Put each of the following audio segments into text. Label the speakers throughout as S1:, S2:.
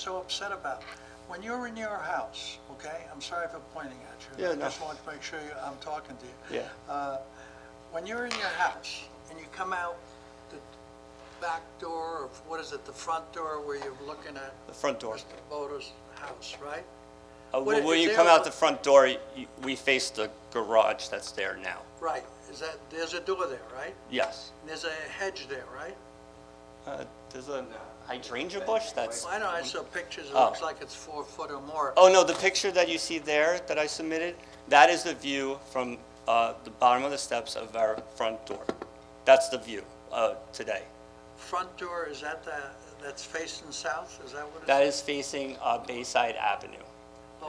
S1: so upset about. When you're in your house, okay, I'm sorry for pointing at you.
S2: Yeah, no.
S1: I just want to make sure you- I'm talking to you. Uh,
S2: Yeah.
S1: When you're in your house and you come out the back door, or what is it, the front door where you're looking at
S2: The front door.
S1: Mr. Boda's house, right?
S2: Uh,
S1: What-
S2: When when
S1: is
S2: you
S1: there
S2: come
S1: a-
S2: out the front door, you- we face the garage that's there now.
S1: Right, is that, there's a door there, right?
S2: Yes.
S1: And There's a hedge there, right?
S2: Uh, There's a hydrangea bush that's,
S1: I know, I saw pictures, it
S2: Oh.
S1: looks like it's four foot or more.
S2: oh, no, the picture that you see there that I submitted, that is the view from uh, the bottom of the steps of our front door. That's the view uh, today.
S1: Front door, is that the, that's facing south, is that what it is?
S2: That is facing uh, Bayside Avenue.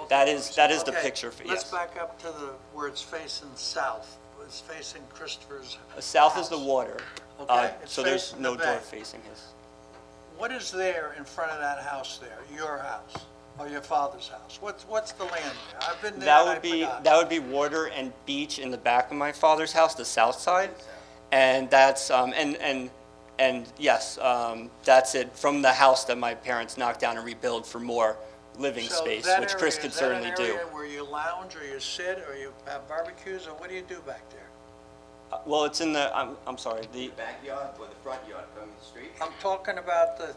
S2: That is, that is the
S1: Okay,
S2: picture, for
S1: Let's
S2: yes.
S1: back up to the, where it's facing south, where it's facing Christopher's.
S2: South is the
S1: house.
S2: water, uh,
S1: Okay, it's
S2: so there's
S1: facing the
S2: no door
S1: bay.
S2: facing his.
S1: What is there in front of that house there, your house, or your father's house? What's, what's the land there? I've been there
S2: That
S1: and I
S2: would be,
S1: forgot.
S2: that would be water and beach in the back of my father's house, the south side. And that's, um, and, and, and yes, um, that's it, from the house that my parents knocked down and rebuilt for more living
S1: So
S2: space,
S1: that
S2: which Chris
S1: area-
S2: could certainly
S1: Is
S2: do.
S1: that an area where you lounge, or you sit, or you have barbecues, or what do you do back there?
S2: Uh, Well, it's in the, I'm, I'm sorry, the,
S3: backyard or the front yard from the street?
S1: I'm talking about the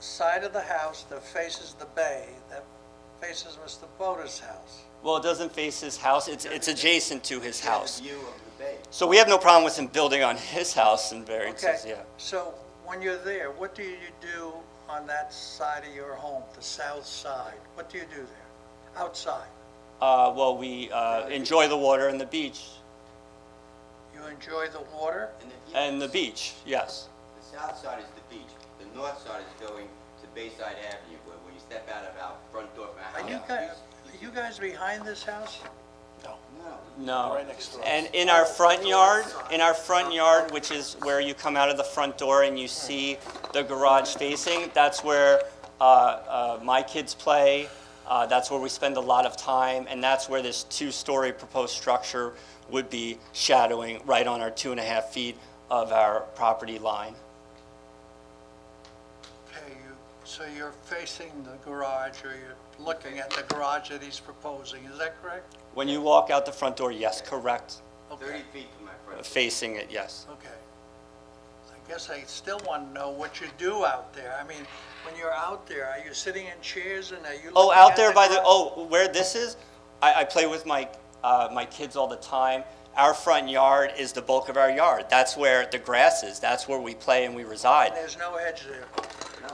S1: side of the house that faces the bay, that faces Mr. Boda's house.
S2: well, it doesn't face his house, it's, it's adjacent to his house.
S3: The view of the bay.
S2: So we have no problem with him building on his house and variances,
S1: Okay,
S2: yeah.
S1: so when you're there, what do you do on that side of your home, the south side? What do you do there, outside?
S2: Uh, well, we, uh, enjoy the water and the beach,
S1: You enjoy the water?
S3: And the,
S2: and the beach, yes.
S3: the south side is the beach. The north side is going to Bayside Avenue, where when you step out of our front door from
S1: Are
S3: our house.
S1: you guys, are you guys behind this house?
S3: No,
S2: No. And in our front yard, in our front yard, which is where you come out of the front door and you see the garage facing, that's where uh, uh, my kids play. Uh, That's where we spend a lot of time, and that's where this two-story proposed structure would be shadowing right on our two and a half feet of our property line.
S1: Okay, you, so you're facing the garage, or you're looking at the garage that he's proposing, is that correct?
S2: When you walk out the front door, yes, correct,
S1: Okay.
S3: thirty feet from my front. door.
S2: facing it, yes.
S1: Okay. I guess I still want to know what you do out there. I mean, when you're out there, are you sitting in chairs and are you looking
S2: Oh, out
S1: at
S2: there by the,
S1: ground?
S2: oh, where this is, I, I play with my, uh, my kids all the time. Our front yard is the bulk of our yard. That's where the grass is. That's where we play and we reside.
S1: There's no hedge there.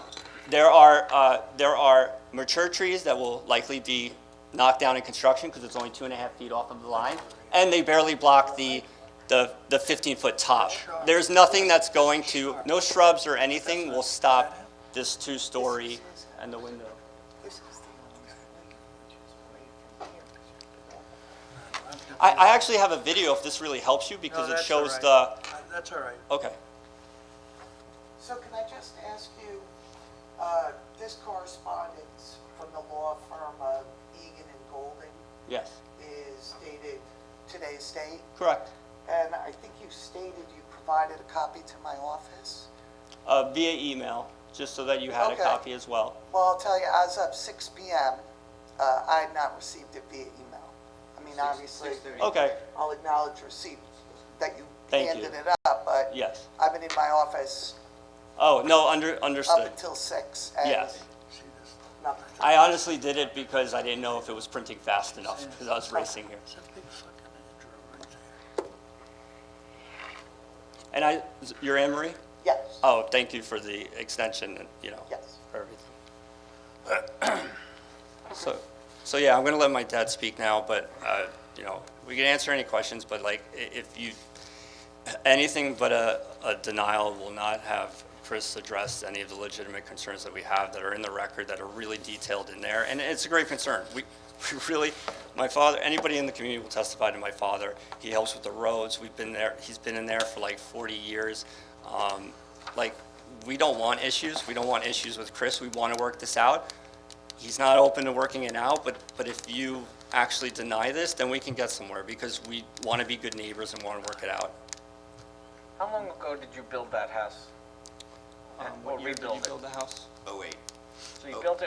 S2: There are, uh, there are mature trees that will likely be knocked down in construction because it's only two and a half feet off of the line. And they barely block the, the, the fifteen-foot top. There's nothing that's going to, no shrubs or anything will stop this two-story and the window. I, I actually have a video if this really helps you
S1: No,
S2: because it
S1: that's all
S2: shows
S1: right.
S2: the,
S1: Uh, That's all right.
S2: okay.
S4: So can I just ask you, uh, this correspondence from the law firm of Egan and Golden
S2: Yes,
S4: is dated today's date?
S2: correct.
S4: And I think you stated you provided a copy to my office.
S2: Uh, via email, just so that you had a
S4: Okay.
S2: copy as well.
S4: Well, I'll tell you, I was up 6 PM. Uh, I had not received it via email. I mean, obviously,
S3: 6:30.
S2: Okay,
S4: I'll acknowledge receipt that you
S2: Thank you.
S4: handed it up, but
S2: yes.
S4: I've been in my office
S2: Oh, no, under,
S4: up
S2: understood.
S4: until 6.
S2: Yes.
S1: See this?
S4: Nothing.
S2: I honestly did it because I didn't know if it was printing fast enough, because I was racing here.
S1: It's a big fucking Andrew right there.
S2: And I, you're Anne Marie?
S4: Yes,
S2: Oh, thank you for the extension and, you know,
S4: yes.
S2: for everything. So, so yeah, I'm going to let my dad speak now, but, uh, you know, we can answer any questions, but like, i- if you, anything but a, a denial will not have Chris address any of the legitimate concerns that we have that are in the record, that are really detailed in there, and it's a great concern. We, we really, my father, anybody in the community will testify to my father. He helps with the roads, we've been there, he's been in there for like 40 years. Um, Like, we don't want issues, we don't want issues with Chris, we want to work this out he's not open to working it out, but, but if you actually deny this, then we can get somewhere, because we want to be good neighbors and want to work it out.
S5: How long ago did you build that house? And- Or
S2: Um, What year did you
S5: rebuild it?
S2: build the house?
S3: Oh, wait.
S5: So you built it